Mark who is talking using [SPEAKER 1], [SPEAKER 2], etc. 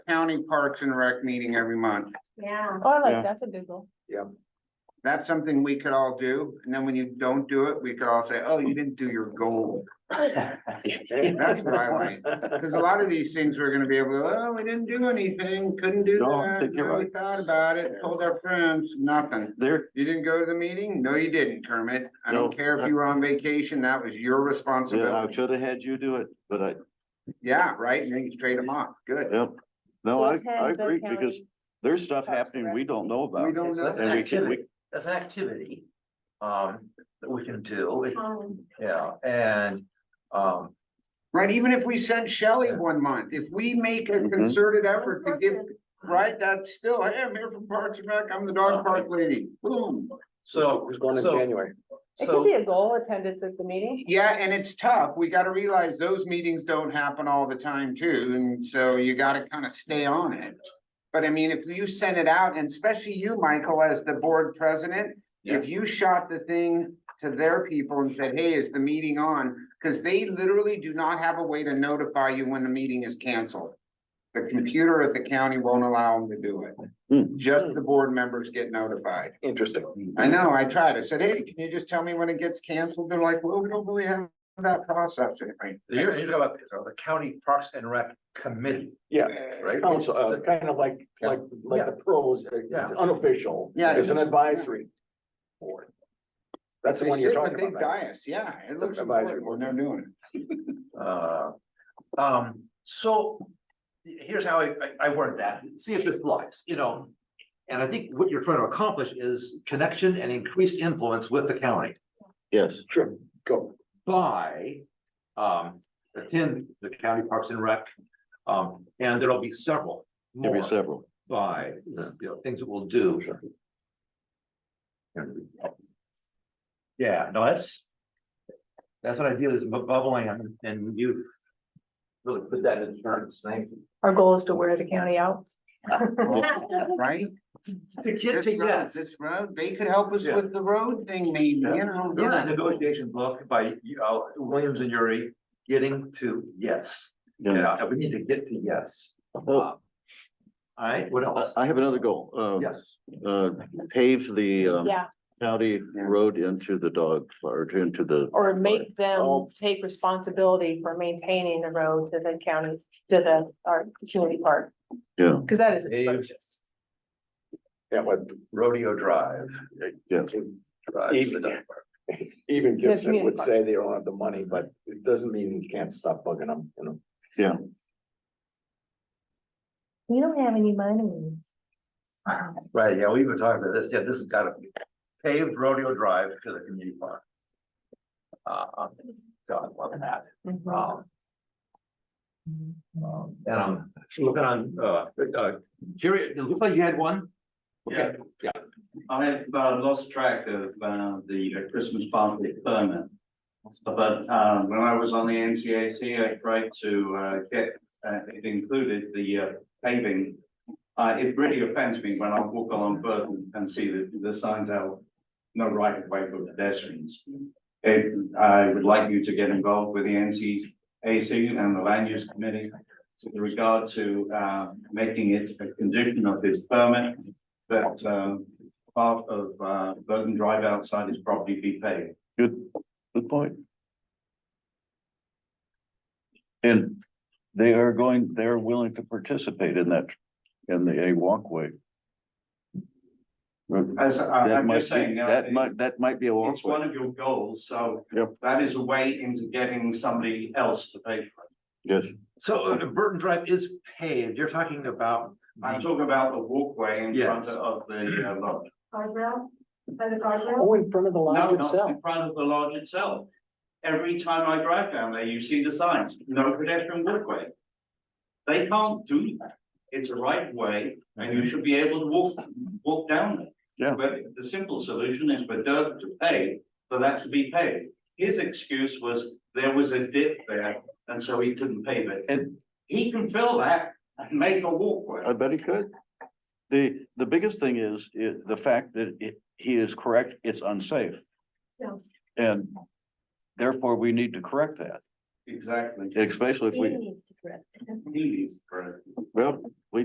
[SPEAKER 1] county parks and rec meeting every month.
[SPEAKER 2] Yeah.
[SPEAKER 3] Oh, I
[SPEAKER 4] Yeah.
[SPEAKER 3] like, that's a good goal.
[SPEAKER 1] That's something we could all do. And then when you don't do it, we could all say, oh, you didn't do your goal. That's what I like. Cause a lot of these things we're gonna be able, to, oh, we didn't do anything, couldn't do
[SPEAKER 4] No, I
[SPEAKER 1] that.
[SPEAKER 4] think you're
[SPEAKER 1] no, We
[SPEAKER 4] right.
[SPEAKER 1] thought about it, told our friends, nothing.
[SPEAKER 4] There,
[SPEAKER 1] You didn't go to the meeting? No, you didn't, Kermit. I don't
[SPEAKER 4] No,
[SPEAKER 1] care if
[SPEAKER 4] that-
[SPEAKER 1] you were on vacation. That was your
[SPEAKER 4] yeah, I
[SPEAKER 1] responsibility.
[SPEAKER 4] should have had you do it, but I,
[SPEAKER 1] Yeah, right? And then you trade them off. Good.
[SPEAKER 4] yep. No,
[SPEAKER 3] So
[SPEAKER 4] I,
[SPEAKER 3] attend
[SPEAKER 4] I
[SPEAKER 3] the
[SPEAKER 4] agree because
[SPEAKER 3] county.
[SPEAKER 4] there's stuff
[SPEAKER 3] Parks and
[SPEAKER 4] happening
[SPEAKER 3] Rec.
[SPEAKER 4] we don't know about.
[SPEAKER 1] We don't
[SPEAKER 5] So that's
[SPEAKER 1] know.
[SPEAKER 5] an
[SPEAKER 4] And we can, we,
[SPEAKER 5] activity, that's an activity, um, that we can do, It-
[SPEAKER 2] Um,
[SPEAKER 5] yeah, and, um,
[SPEAKER 1] Right? Even if we sent Shelley one month, if we make a
[SPEAKER 4] Mhm.
[SPEAKER 1] concerted effort to give,
[SPEAKER 2] person-
[SPEAKER 1] right, that's still, hey, I'm here from Parks and Rec. I'm the dog park lady. Boom.
[SPEAKER 5] so.
[SPEAKER 6] Who's going in
[SPEAKER 5] so-
[SPEAKER 6] January?
[SPEAKER 3] It
[SPEAKER 5] so-
[SPEAKER 3] could be a goal attendance at the meeting.
[SPEAKER 1] Yeah, and it's tough. We gotta realize those meetings don't happen all the time too, and so you gotta kind of stay on it. But I mean, if you send it out, and especially you, Michael, as the board president, if you shot the thing to their people and said, hey, is the meeting on? Cause they literally do not have a way to notify you when the meeting is canceled. The computer at the county won't allow them to do it.
[SPEAKER 4] Hmm.
[SPEAKER 1] Just the board members get notified.
[SPEAKER 6] Interesting.
[SPEAKER 1] I know, I tried. I said, hey, can you just tell me when it gets canceled? They're like, well, we don't really have that process. anyway."
[SPEAKER 5] You're, you're talking about uh, the county parks and rec committee,
[SPEAKER 6] Yeah.
[SPEAKER 5] right?
[SPEAKER 6] Council, uh,
[SPEAKER 5] Oh, So-
[SPEAKER 6] kind of like, like, like the pros, uh,
[SPEAKER 5] Yeah.
[SPEAKER 6] it's unofficial.
[SPEAKER 1] Yeah.
[SPEAKER 6] It's an advisory board. That's the
[SPEAKER 1] They
[SPEAKER 6] one you're
[SPEAKER 1] sit in the
[SPEAKER 6] talking
[SPEAKER 1] big
[SPEAKER 6] about, right?
[SPEAKER 1] Dais, yeah, it looks
[SPEAKER 6] Advisory
[SPEAKER 1] important when they're doing it.
[SPEAKER 5] Uh, um, so here's how I, I- I word that, see if it flies, you know. And I think what you're trying to accomplish is connection and increased influence with the county
[SPEAKER 4] yes,
[SPEAKER 6] Sure, go.
[SPEAKER 5] by um, attend the county parks and rec. Um, and there'll be several
[SPEAKER 4] there'll be
[SPEAKER 5] more
[SPEAKER 4] several.
[SPEAKER 5] by, you know, things that we'll do. Yeah, no, that's, that's what I feel is bu- bubbling and- and you really put that in terms, thank you.
[SPEAKER 3] Our goal is to wear the county out.
[SPEAKER 1] Right?
[SPEAKER 5] The
[SPEAKER 1] This road, this road, they could help us
[SPEAKER 5] Yeah.
[SPEAKER 1] with the road thing maybe, you
[SPEAKER 5] Yeah.
[SPEAKER 1] know.
[SPEAKER 5] In that negotiation book by, you know, Williams and Yuri, getting to yes,
[SPEAKER 4] Yeah.
[SPEAKER 5] yeah, we need to get to yes.
[SPEAKER 4] Well,
[SPEAKER 5] Uh, All right, what
[SPEAKER 4] I,
[SPEAKER 5] else?
[SPEAKER 4] I have another goal. Uh,
[SPEAKER 5] Yes,
[SPEAKER 4] Uh, pave the, um,
[SPEAKER 3] Yeah,
[SPEAKER 4] county road into the dog or into the.
[SPEAKER 3] or make them
[SPEAKER 4] Oh.
[SPEAKER 3] take responsibility for maintaining the road to the county, to the, our community park.
[SPEAKER 4] Yeah.
[SPEAKER 3] Cause that is
[SPEAKER 5] Dave.
[SPEAKER 3] atrocious.
[SPEAKER 6] Yeah, but
[SPEAKER 5] rodeo drive.
[SPEAKER 4] Yeah.
[SPEAKER 5] drive to the dog park.
[SPEAKER 6] uh, even
[SPEAKER 3] So
[SPEAKER 6] Gibson
[SPEAKER 3] community
[SPEAKER 6] would
[SPEAKER 3] park.
[SPEAKER 6] say they don't have the money, but it doesn't mean you can't stop bugging them, you know?
[SPEAKER 3] We don't have any money.
[SPEAKER 5] Right, yeah, we've been talking about this, yeah, this has gotta be paved rodeo drive to the community park. Uh, God, love that,
[SPEAKER 3] Mhm.
[SPEAKER 5] um.
[SPEAKER 7] Mm-hmm.
[SPEAKER 5] um, And I'm looking on, uh, uh, Jerry, it looks like you had one. Okay,
[SPEAKER 7] I have uh, lost track of uh, the uh, Christmas party permit. But uh, when I was on the NCAC, I tried to uh, get, uh, it included the uh, paving. Uh, It really offends me when I walk along Burton and see the, the signs out, no right of way for pedestrians. It- I would like you to get involved with the NCAC and the land use committee with regard to uh, making it a condition of this permit that um, part of uh, Burton Drive outside is property be paid.
[SPEAKER 4] Good, good point. And they are going, they're willing to participate in that, in the a walkway. That
[SPEAKER 7] As I- I'm
[SPEAKER 4] might,
[SPEAKER 7] just
[SPEAKER 4] be-
[SPEAKER 7] saying, uh,
[SPEAKER 4] that might, that might be a
[SPEAKER 7] it's one
[SPEAKER 4] walkway.
[SPEAKER 7] of your goals, so
[SPEAKER 4] Yep.
[SPEAKER 7] that is a way into getting somebody else to pay for it.
[SPEAKER 4] Yes,
[SPEAKER 5] so uh, Burton Drive is paved, you're talking about.
[SPEAKER 7] I'm talking about the walkway in front
[SPEAKER 5] Yes.
[SPEAKER 7] of the uh, lodge.
[SPEAKER 2] Guardrail, by the guardrail.
[SPEAKER 6] Oh, in front of the
[SPEAKER 7] No,
[SPEAKER 6] lodge
[SPEAKER 7] not
[SPEAKER 6] itself.
[SPEAKER 7] in front of the lodge itself. Every time I drive down there, you see the signs, no pedestrian walkway. They can't do that. It's a right way and you should be able to walk, walk down it.
[SPEAKER 4] Yeah.
[SPEAKER 7] But the simple solution is for Dirk to pay, for that to be paid. His excuse was there was a dip there and so he couldn't pave it.
[SPEAKER 4] And-
[SPEAKER 7] He can fill that and make a walkway.
[SPEAKER 4] I bet he could. The, the biggest thing is, i the fact that it, he is correct, it's unsafe.
[SPEAKER 2] Yeah.
[SPEAKER 4] And therefore we need to correct that,
[SPEAKER 7] Exactly.
[SPEAKER 4] especially if
[SPEAKER 3] He
[SPEAKER 4] we,
[SPEAKER 3] needs to correct.
[SPEAKER 7] He needs the credit.
[SPEAKER 4] well,